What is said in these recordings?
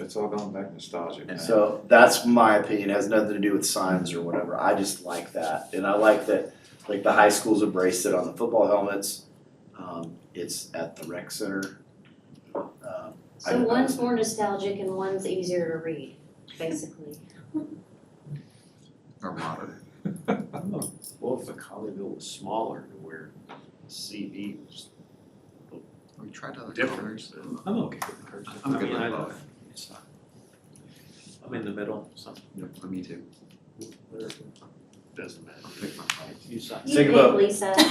it's all gone back nostalgic. Yeah. So that's my opinion, It has nothing to do with signs or whatever, I just like that, and I like that, like the high schools embraced it on the football helmets. Um, it's at the rec center. Um, I So don't know. one's more nostalgic and one's easier to read, basically. or modern. What if the Colleyville was smaller to where CB was We tried other Different. colors. I'm okay with the curves. I'm I good mean, I with don't- both. it's not- I'm in the middle, so Yep, me too. doesn't matter. I'll pick my color. You sign. Think You about- pick Lisa. Can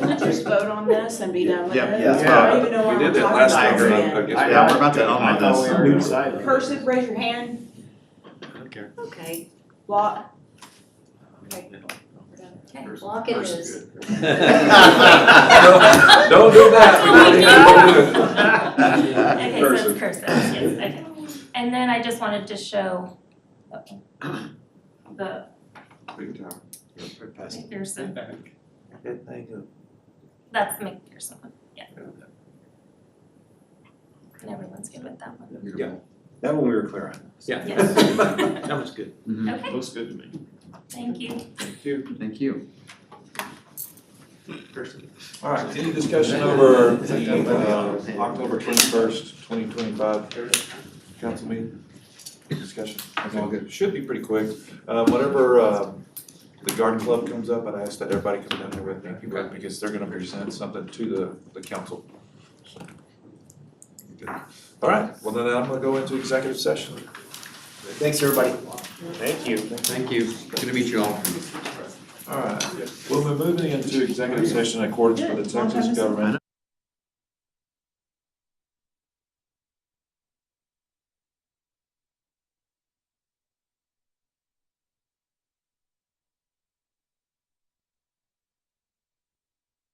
we just vote on this and be done with it? Yeah, yeah, let's I vote. don't even know We what did I'm that talking last about time, again. I guess. I- yeah, we're about to I end thought we were doing on this. side. Person, raise your hand. I don't care. Okay, Lot, I mean, we're done. okay, block it First is. Don't do that. That's Okay, so it's cursive, yes, okay. And then I just wanted to show the Big time. McPherson, Good thing. that's McPherson, yeah. And everyone's good with that one, Beautiful. That one we were clear on. Yeah. Yes. That was good. Mhm. okay, Looks good to me. thank you. Thank you. Thank you. All right, any discussion over the uh, October twenty-first, twenty twenty-five council meeting? Discussion, that's all good, should be pretty quick. Uh, Whatever uh, the garden club comes up, I'd ask that everybody come down here with me, because they're gonna present something to the, the council. So, good. All right, well then I'm gonna go into executive session. Thanks, everybody. Thank you. Thank you. Good to meet you all. All right, well, we're moving into executive session in accordance with the Texas Government